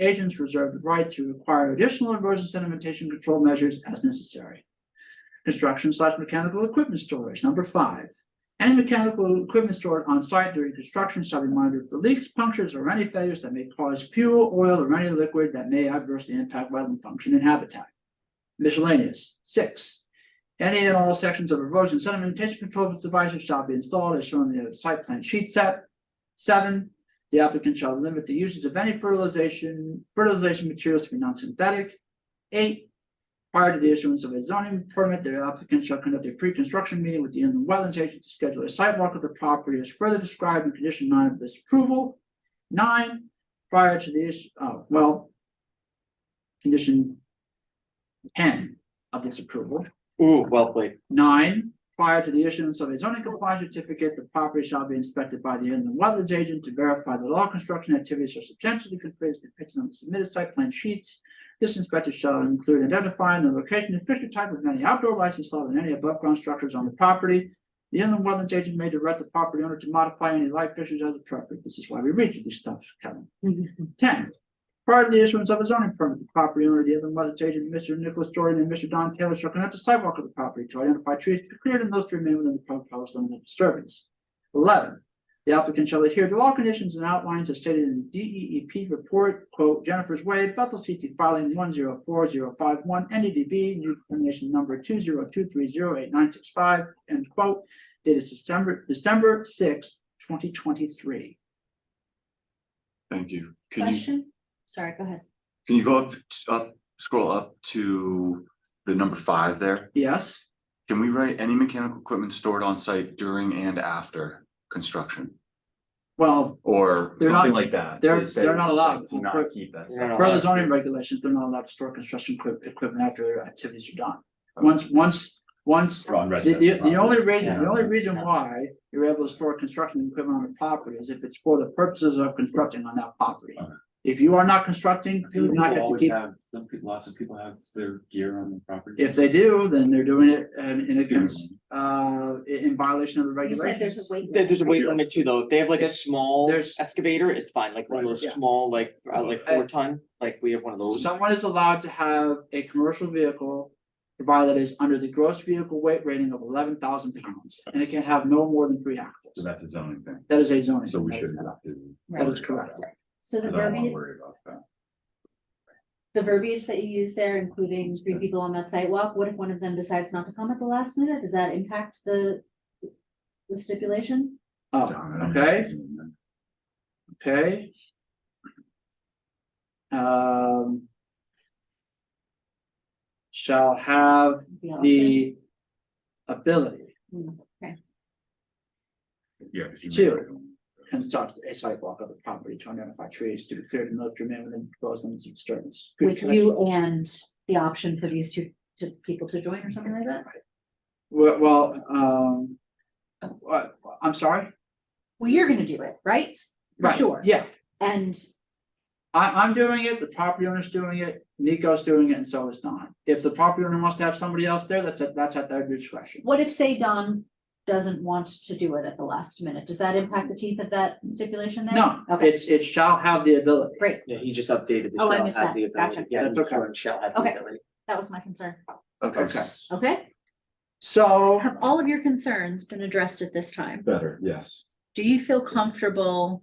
agents reserve the right to require additional erosion sedimentation control measures as necessary. Construction slash mechanical equipment storage, number five. Any mechanical equipment stored on site during construction shall be monitored for leaks, punctures, or any failures that may cause fuel, oil, or any liquid that may adversely impact wetland function and habitat. Miscellaneous, six. Any and all sections of erosion sedimentation control devices shall be installed as shown in the site plan sheet set. Seven, the applicant shall limit the uses of any fertilization, fertilization materials to be non-synthetic. Eight, prior to the issuance of a zoning permit, the applicant shall conduct a pre-construction meeting with the inland wetlands agent to schedule a site walk of the property as further described in condition nine of this approval. Nine, prior to the issue, oh, well. Condition ten of this approval. Ooh, well played. Nine, prior to the issuance of a zoning compliance certificate, the property shall be inspected by the inland wetlands agent to verify that all construction activities are substantially complete as depicted on the submitted site plan sheets. This inspector shall include identifying the location and fixture type of any outdoor lights installed in any above ground structures on the property. The inland wetlands agent may direct the property owner to modify any light fixtures as appropriate. This is why we read you these stuff, Kevin. Ten, Prior to the issuance of a zoning permit, the property owner, the other mother's agent, Mr. Nicholas Jordan and Mr. Don Taylor shall conduct a sidewalk of the property to identify trees to be cleared and those to remain within the proposed limit of disturbance. Eleven, the applicant shall adhere to all conditions and outlines as stated in the D E E P report, quote, Jennifer's Way, Bethel CT filing one zero four zero five one, N E D B, new determination number two zero two three zero eight nine six five, end quote, dated September, December sixth, twenty twenty-three. Thank you. Can you, Question? Sorry, go ahead. can you go up, up, scroll up to the number five there? Yes? Can we write any mechanical equipment stored on site during and after construction Well, or? They're not- Something like that. they're- They say, they're not allowed. like, Do not keep that. stuff. Per the zoning regulations, they're not allowed to store construction equip- equipment after their activities are done. Once, once, once, On the, residential the, the property. only reason, the only reason Yeah. why you're able to store construction equipment on a property is if it's for the purposes of constructing on that property. If you are not constructing, I feel you like do not people get to always keep, have, some people, lots of people have their gear on the property. if they do, then they're doing it and, and against, uh, in in violation of the You said there's regulations. a weight. There- There's a weight Yeah. limit too, though. If they have like a It's- small there's- excavator, it's fine, like one of those yeah. small, like, uh, like Uh, four ton, like we have one of those. Someone is allowed to have a commercial vehicle. Provided it is under the gross vehicle weight rating of eleven thousand pounds, and it can have no more than three axles. So that's a zoning thing, That is a zoning. so we shouldn't regulation. have to. That Right. is correct. So I the don't wanna verbiage, worry about that. the verbiage that you use there, including three people on that sidewalk, what if one of them decides not to come at the last minute? Does that impact the the stipulation? Oh, okay, okay. Um. Shall have The option? the ability Mm, Yeah, because you. Two. to construct a sidewalk of the property to identify trees to be cleared and located within proposed limits of disturbance. With you and the option for these two two people to join or something like that? Well, well, um. uh, I'm sorry? Well, you're gonna do it, right? For Right, Sure. Yeah, And I, I'm doing it, the property owner's doing it, Nico's doing it, and so is Don. If the property owner wants to have somebody else there, that's at, that's at their discretion. what if, say, Don doesn't want to do it at the last minute? Does that impact the teeth of that stipulation there? No, Okay. it's, it shall have the ability. Great, Yeah, he just updated. Oh, I shall missed have that. the ability. Gotcha. Yeah, That's okay. Shall have the Okay. that was my concern. Okay. Okay. s- Okay? So, Have all of your concerns been addressed at this time? Better, yes. Do you feel comfortable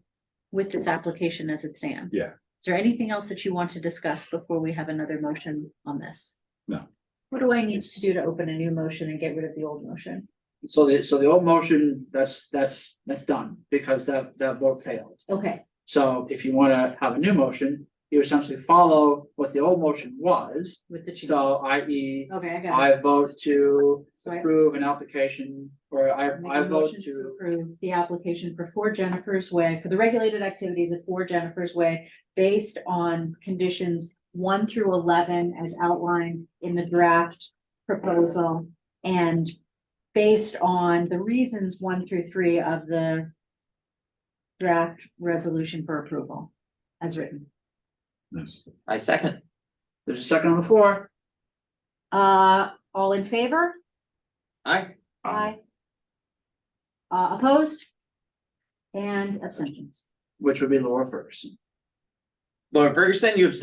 with this application as it stands? Yeah. Is there anything else that you want to discuss before we have another motion on this? No. What do I need to do to open a new motion and get rid of the old motion? so the, so the old motion, that's, that's, that's done, because that, that vote failed. Okay, So if you wanna have a new motion, you essentially follow what the old motion was. with the change. So e, i.e., Okay, I got it. I vote to So I approve an application, or I, make I a vote motion to. approve the application for Four Jennifer's Way, for the regulated activities of Four Jennifer's Way, based on conditions one through eleven as outlined in the draft proposal, and based on the reasons one through three of the draft resolution for approval, as written. Yes. I second. There's a second on the floor. Uh, all in favor? I. Aye. Uh, opposed? And abstentions. which would be Laura Ferguson. Laura Ferguson, you abstained?